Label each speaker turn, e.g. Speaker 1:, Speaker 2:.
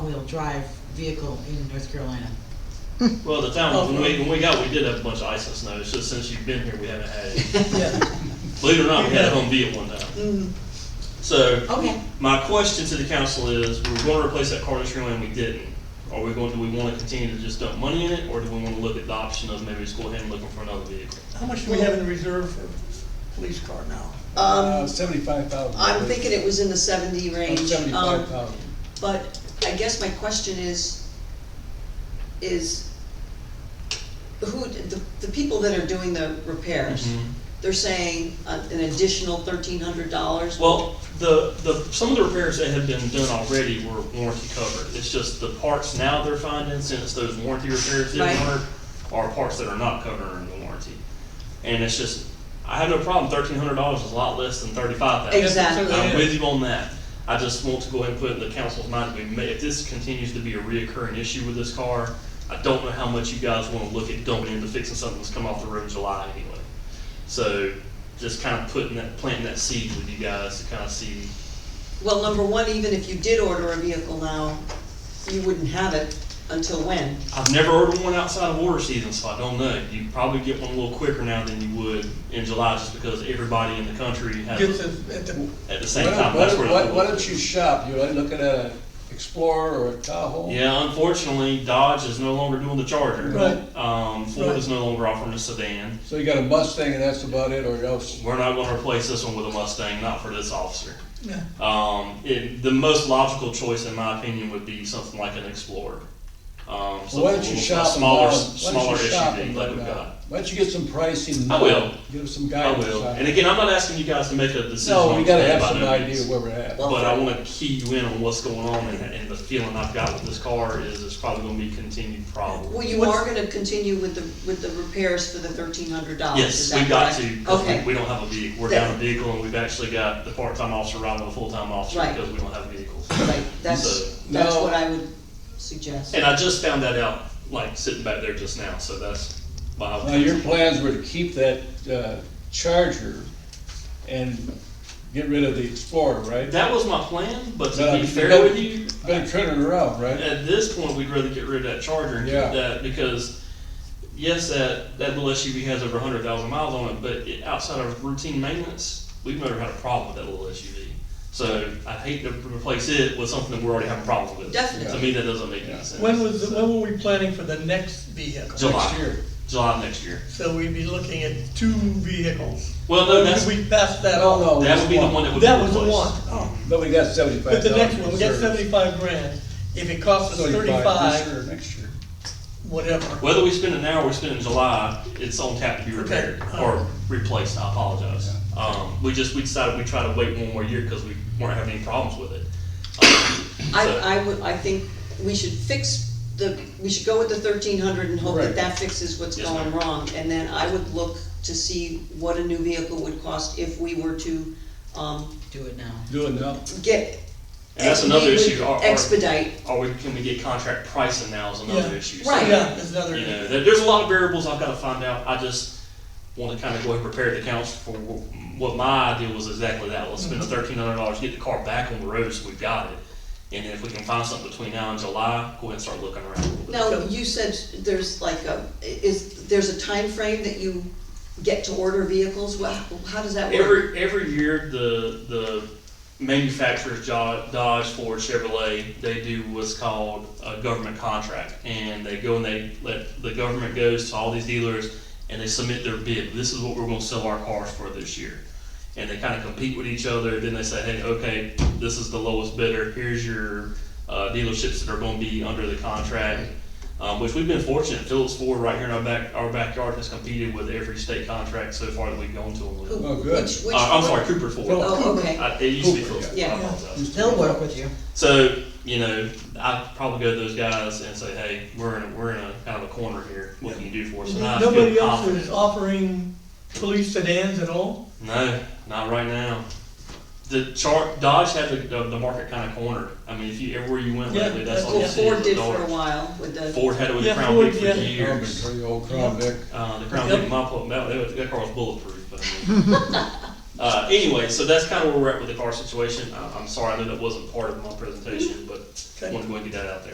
Speaker 1: drive vehicle in North Carolina.
Speaker 2: Well, the town, when we, when we got, we did have a bunch of ice and snow, it's just since you've been here, we haven't had it. Believe it or not, we had a home View one time.
Speaker 1: Mm,
Speaker 2: So,
Speaker 1: Okay,
Speaker 2: my question to the council is, we're gonna replace that Carter Stream and we didn't. Are we going, do we wanna continue to just dump money in it, or do we wanna look at the option of maybe just go ahead and looking for another vehicle?
Speaker 3: How much do we have in reserve for police car now?
Speaker 4: Um,
Speaker 5: uh, Seventy-five thousand.
Speaker 4: I'm thinking it was in the seventy
Speaker 2: Oh,
Speaker 4: range. um,
Speaker 5: Seventy-five thousand.
Speaker 4: But I guess my question is, is who, the, the people that are doing the repairs,
Speaker 2: Mm-hmm.
Speaker 4: they're saying uh, an additional thirteen hundred dollars?
Speaker 2: Well, the, the, some of the repairs that have been done already were warranty covered. It's just the parts now they're finding, since those warranty repairs didn't
Speaker 4: Right.
Speaker 2: work, are parts that are not covered under the warranty. And it's just, I have no problem, thirteen hundred dollars is a lot less than thirty-five thousand.
Speaker 4: Exactly.
Speaker 2: I'm with you on that. I just want to go ahead and put in the council's mind, we may, if this continues to be a reoccurring issue with this car, I don't know how much you guys wanna look at dumping into fixing something that's come off the road in July anyway. So, just kinda putting that, planting that seed with you guys to kinda see,
Speaker 4: Well, number one, even if you did order a vehicle now, you wouldn't have it until when?
Speaker 2: I've never ordered one outside of order season, so I don't know. You probably get one a little quicker now than you would in July, just because everybody in the country
Speaker 3: Gets
Speaker 2: has,
Speaker 3: us at the,
Speaker 2: at the
Speaker 5: Why
Speaker 2: same
Speaker 5: don't-
Speaker 2: time,
Speaker 5: why
Speaker 2: that's
Speaker 5: don't,
Speaker 2: where.
Speaker 5: why- why don't you shop, you like looking at a Explorer or a Tahoe?
Speaker 2: Yeah, unfortunately, Dodge is no longer doing the Charger.
Speaker 3: Right.
Speaker 2: Um, Ford
Speaker 3: Right.
Speaker 2: is no longer offering a sedan.
Speaker 5: So you got a Mustang and that's about it, or else,
Speaker 2: We're not gonna replace this one with a Mustang, not for this officer.
Speaker 3: yeah,
Speaker 2: Um, it, the most logical choice, in my opinion, would be something like an Explorer. Um, something
Speaker 5: why
Speaker 2: a
Speaker 5: don't you
Speaker 2: little
Speaker 5: shop and
Speaker 2: smaller,
Speaker 5: buy- why don't
Speaker 2: smaller
Speaker 5: you shop uh,
Speaker 2: SUV
Speaker 5: and
Speaker 2: like
Speaker 5: buy
Speaker 2: we've
Speaker 5: that?
Speaker 2: got.
Speaker 5: Why don't you get some pricing?
Speaker 2: I
Speaker 5: now?
Speaker 2: will.
Speaker 5: Give us some
Speaker 2: I
Speaker 5: guidance.
Speaker 2: will.
Speaker 5: on-
Speaker 2: And again, I'm not asking you guys to make a decision.
Speaker 5: No, we
Speaker 2: on
Speaker 5: gotta
Speaker 2: today
Speaker 5: have
Speaker 2: by
Speaker 5: some
Speaker 2: no means,
Speaker 5: idea where we're at.
Speaker 2: But I wanna key you in on what's going on, and, and the feeling I've got with this car is it's probably gonna be a continued problem.
Speaker 4: Well, you are gonna continue with the, with the repairs for the thirteen hundred dollars, is
Speaker 2: Yes, we
Speaker 4: that
Speaker 2: got
Speaker 4: correct?
Speaker 2: to, cause we, we
Speaker 4: Okay,
Speaker 2: don't have a vehicle, we're
Speaker 4: That-
Speaker 2: down a vehicle, and we've actually got the part-time officer riding with a full-time officer,
Speaker 4: Right.
Speaker 2: because we don't have vehicles.
Speaker 4: right, that's,
Speaker 2: So-
Speaker 4: that's
Speaker 5: No.
Speaker 4: what I would suggest.
Speaker 2: And I just found that out, like, sitting back there just now, so that's why I
Speaker 5: Now,
Speaker 2: was.
Speaker 5: your plans were to keep that, uh, Charger and get rid of the Explorer, right?
Speaker 2: That was my plan, but
Speaker 5: But
Speaker 2: to be
Speaker 5: you
Speaker 2: fair
Speaker 5: gotta-
Speaker 2: with you,
Speaker 5: Better turn it around, right?
Speaker 2: At this point, we'd rather get rid of that Charger and
Speaker 5: Yeah.
Speaker 2: keep that because, yes, that, that little SUV has over 100,000 miles on it, but it, outside of routine maintenance, we've never had a problem with that little SUV. So I'd hate to replace it with something that we're already having problems with.
Speaker 4: Definitely.
Speaker 2: To me, that doesn't make
Speaker 5: Yeah.
Speaker 2: any sense.
Speaker 3: when was, the- when were we planning for the next vehicle?
Speaker 2: July.
Speaker 5: Next year.
Speaker 2: July next year.
Speaker 3: So we'd be looking at two vehicles.
Speaker 2: Well, no,
Speaker 3: Or
Speaker 2: that's-
Speaker 3: did We passed that
Speaker 5: No,
Speaker 3: on.
Speaker 5: no.
Speaker 2: That would be the
Speaker 5: Oh, one.
Speaker 2: one that would be
Speaker 3: That was the
Speaker 2: replaced.
Speaker 3: one. Oh.
Speaker 5: But we got seventy-five
Speaker 3: But
Speaker 5: thousand.
Speaker 3: the next one, we got seventy-five grand, if it costs us thirty-five,
Speaker 5: Next year.
Speaker 3: whatever.
Speaker 2: Whether we spend it now or we spend it in July, it's on tap to be repaired
Speaker 3: Okay.
Speaker 2: or replaced, I apologize. Um, we just, we decided we'd try to wait one more year because we weren't having any problems with it. Um, so-
Speaker 4: I, I would, I think we should fix the, we should go with the thirteen hundred and hope that
Speaker 5: Right.
Speaker 4: that fixes what's
Speaker 2: Yes,
Speaker 4: going
Speaker 2: ma'am.
Speaker 4: wrong. And then I would look to see what a new vehicle would cost if we were to, um,
Speaker 1: do it now.
Speaker 5: Do it now.
Speaker 4: get.
Speaker 2: And that's another
Speaker 4: we would
Speaker 2: issue, our- our-
Speaker 4: Expedite,
Speaker 2: Are we, can we get contract pricing now is
Speaker 3: Yeah.
Speaker 2: another issue. So,
Speaker 4: Right.
Speaker 3: Yeah, there's another.
Speaker 2: You know, there, there's a lot of variables I've gotta find out, I just wanna kinda go ahead and prepare the council for wh- what my idea was exactly that, let's spend
Speaker 3: Mm-hmm.
Speaker 2: the thirteen hundred dollars, get the car back on the road so we've got it. And then if we can find something between now and July, go ahead and start looking around a little bit.
Speaker 4: now, you said there's like a, is, there's a time frame that you get to order vehicles, well, how does that work?
Speaker 2: Every, every year, the, the manufacturers, Jo- Dodge, Ford, Chevrolet, they do what's called a government contract. And they go and they let, the government goes to all these dealers and they submit their bid. This is what we're gonna sell our cars for this year. And they kinda compete with each other, then they say, hey, okay, this is the lowest bidder, here's your, uh, dealerships that are gonna be under the contract. Um, which we've been fortunate, Phillips Ford right here in our back, our backyard has competed with every state contract so far that we've gone to them with.
Speaker 4: Who-
Speaker 5: Oh, good.
Speaker 4: which- which-
Speaker 2: Uh, I'm sorry, Cooper Ford.
Speaker 5: Phillips.
Speaker 4: Oh, okay.
Speaker 2: I, it used to be
Speaker 5: Cooper,
Speaker 2: Phillips.
Speaker 4: yeah.
Speaker 2: I
Speaker 3: Yeah.
Speaker 2: apologize.
Speaker 1: They'll work with you.
Speaker 2: So, you know, I'd probably go to those guys and say, hey, we're in, a- we're in a kind of a corner here. What can you do for us? And I feel
Speaker 3: Nobody else
Speaker 2: confident.
Speaker 3: is offering police sedans at all?
Speaker 2: No, not right now. The chart, Dodge had the, the, the market kind of cornered. I mean, if you, everywhere you went
Speaker 3: Yeah.
Speaker 2: lately, that's all you
Speaker 4: Well,
Speaker 2: see is
Speaker 4: Ford
Speaker 2: the
Speaker 4: did for a
Speaker 2: Dodge.
Speaker 4: while with the,
Speaker 2: Ford had it with
Speaker 3: Yeah,
Speaker 2: the Crown
Speaker 3: Ford,
Speaker 2: Vic for
Speaker 3: yeah.
Speaker 2: years.
Speaker 5: Pretty old Crown Vic.
Speaker 2: Uh, the Crown
Speaker 3: Yep.
Speaker 2: Vic, my, pl- that, that, that car was bulletproof, but I mean. Uh, anyway, so that's kind of where we're at with the car situation. I, I'm sorry, I know that wasn't part of my presentation, but
Speaker 3: Okay.
Speaker 2: wanted to go and get that out there.